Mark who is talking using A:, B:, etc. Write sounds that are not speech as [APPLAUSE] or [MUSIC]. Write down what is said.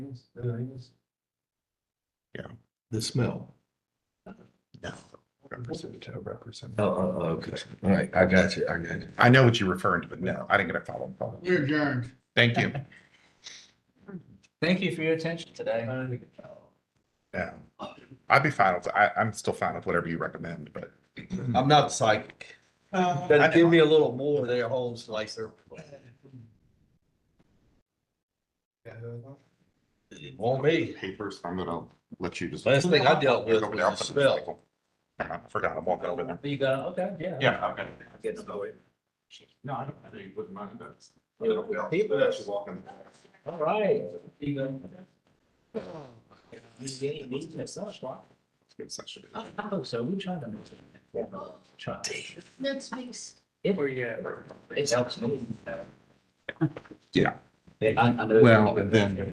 A: things, the things.
B: the smell.
C: No.
B: Representative, representative.
D: Oh, oh, oh, okay. All right, I got you, I got you.
C: I know what you're referring to, but no, I didn't get a follow-up call.
A: You're adjourned.
C: Thank
D: [LAUGHS]
C: you.
E: Thank you for your attention today.
C: Yeah. I'd be fine with, I, I'm still fine with whatever you recommend, but
D: I'm not psychic. But give me a little more there, Holmes, like there. Won't be.
C: papers, I'm gonna let you just.
D: Last thing I dealt with
C: Go over
D: was
C: there, I'll
D: a
C: put it in
D: smell.
C: cycle. I forgot, I'm walking over there.
E: You got, okay, yeah.
C: Yeah, okay.
E: Get the boy.
C: No, I don't, I think you wouldn't mind
E: Yeah.
C: that. People that's walking.
E: All right. You go. You get- you need to start, right?
C: It's not sure.
E: I I hope Oh, so. We try to. make it. Try.
F: Next week's.
E: It, it helps me.
C: Yeah.
E: I, I know.
C: Well, and then-